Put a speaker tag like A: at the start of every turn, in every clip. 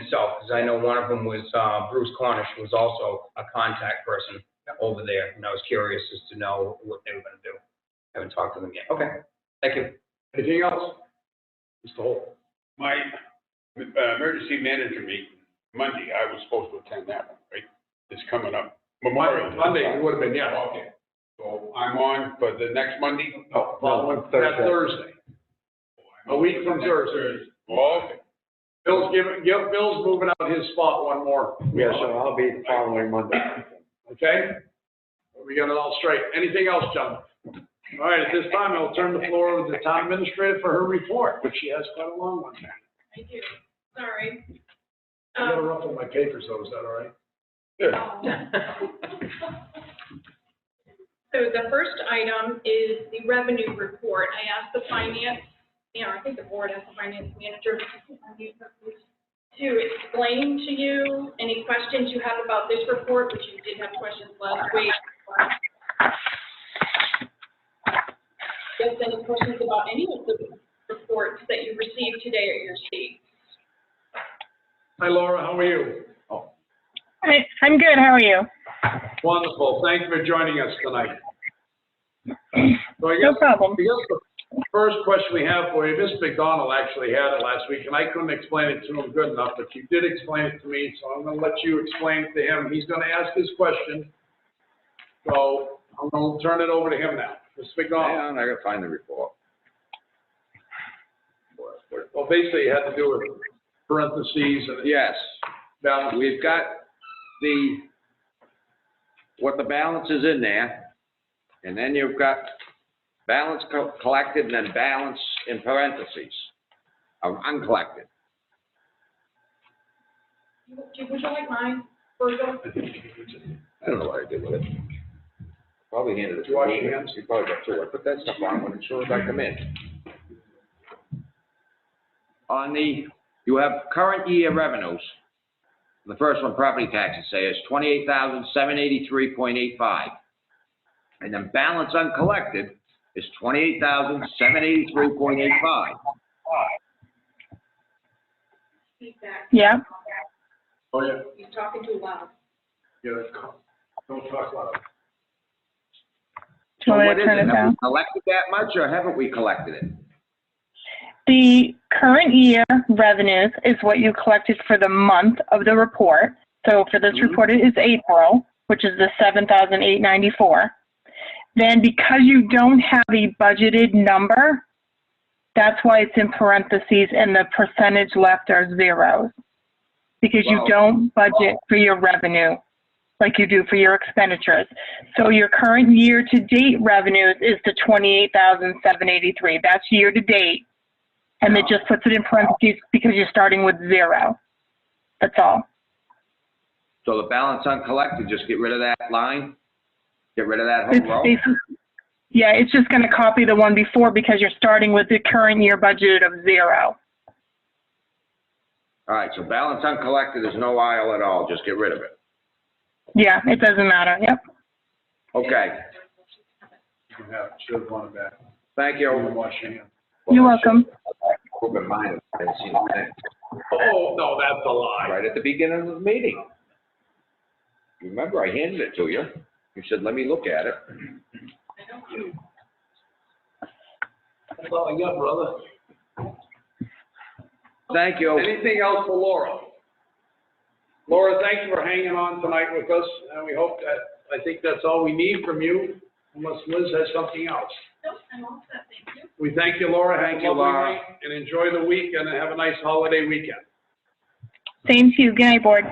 A: himself, because I know one of them was, uh, Bruce Cornish, who was also a contact person over there, and I was curious as to know what they were gonna do. Haven't talked to them yet. Okay, thank you.
B: Anything else? Mr. Holt?
C: My uh, emergency manager meeting, Monday, I was supposed to attend that one, right? It's coming up. Memorial. Day.
B: Monday, it would have been, yeah.
C: Okay. So I'm on for the next Monday?
B: No,
D: following
B: That
D: Thursday.
B: Thursday. A week from Thursday.
C: Oh, okay.
B: Bill's giving, yeah, Bill's moving out his spot one more.
D: Yeah, so I'll be the following Monday.
B: Okay? We got it all straight. Anything else, John? All right, at this time, I'll turn the floor over to the town administrator for her report, which she has quite a long one.
E: I do, sorry.
B: I gotta
E: Um,
B: ruffle my papers though, is that all right?
E: So the first item is the revenue report. I asked the finance, you know, I think the board asked the finance manager to explain to you any questions you have about this report, which you did have questions last week. Just any questions about any of the reports that you received today at your seat?
B: Hi Laura, how are you?
F: Hi, I'm good. How are you?
B: Wonderful. Thank you for joining us tonight. So I
F: No
B: guess, I
F: problem.
B: guess the first question we have for you, Ms. McDonald actually had it last week, and I couldn't explain it to him good enough, but you did explain it to me, so I'm gonna let you explain it to him. He's gonna ask his question. So I'm gonna turn it over to him now. Ms.
G: Hang
B: McDonald,
G: on, I gotta find the report.
B: well, basically it had to do with parentheses and
G: Yes,
B: balance.
G: we've got the, what the balance is in there, and then you've got balance co- collected and then balance in parentheses of uncollected.
E: Would you like mine, Virgil?
G: I don't know what I did with it. Probably handed it to
B: Wash your
G: me.
B: hands.
G: You probably got two. I put that stuff on when as soon as I come in. On the, you have current year revenues. The first one, property taxes, say is twenty-eight thousand, seven eighty-three point eight-five. And then balance uncollected is twenty-eight thousand, seven eighty-three point eight-five.
E: Feedback.
F: Yeah.
B: Oh, yeah,
E: You're talking too loud.
B: yeah, come- don't talk loud.
F: Do you want me to turn it
G: Have
F: down?
G: we collected that much or haven't we collected it?
F: The current year revenues is what you collected for the month of the report. So for this
G: Mm-hmm.
F: report, it is April, which is the seven thousand eight ninety-four. Then because you don't have a budgeted number, that's why it's in parentheses and the percentage left are zeros. Because you
G: Wow.
F: don't budget for your revenue like you do for your expenditures. So your current year-to-date revenues is the twenty-eight thousand seven eighty-three. That's year-to-date. And it just puts it in parentheses because you're starting with zero. That's all.
G: So the balance uncollected, just get rid of that line? Get rid of that
F: It's
G: whole row?
F: basi- Yeah, it's just gonna copy the one before because you're starting with the current year budget of zero.
G: All right, so balance uncollected is no aisle at all, just get rid of it.
F: Yeah, it doesn't matter, yep.
G: Okay,
B: You can have, should have gone back.
G: thank
B: Yeah, we'll
G: you.
B: wash your hands.
F: You're welcome.
G: Open mind, I didn't see the thing.
B: Oh, no, that's a lie.
G: Right at the beginning of the meeting. Remember, I handed it to you. You said, let me look at it.
B: That's all I got, brother.
G: Thank you.
B: Anything else for Laura? Laura, thank you for hanging on tonight with us, and we hope that, I think that's all we need from you, unless Liz has something else.
E: No, I'm all set, thank you.
B: We thank you, Laura. Have a
G: Thank you,
B: lovely
G: Laura.
B: night, And enjoy the week, and have a nice holiday weekend.
F: Same to you. Good night, board.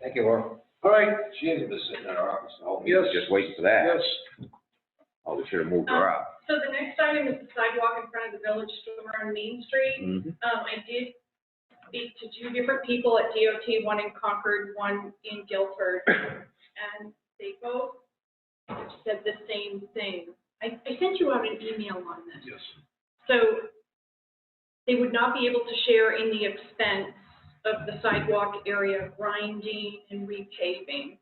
G: Thank you, Laura.
B: All right,
G: She hasn't been sitting in our office, the whole
B: Yes.
G: meeting, just waiting for that.
B: yes.
G: Oh, we should have moved her up.
E: So the next item is the sidewalk in front of the village store on Main Street.
G: Mhm.
E: Um, I did speak to two different people at DOT, one in Concord, one in Guilford, and they both said the same thing. I, I sent you out an email on this.
B: Yes.
E: So they would not be able to share in the expense of the sidewalk area grinding and repaving.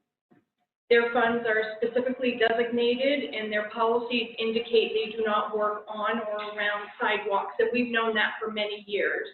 E: Their funds are specifically designated and their policies indicate they do not work on or around sidewalks, and we've known that for many years.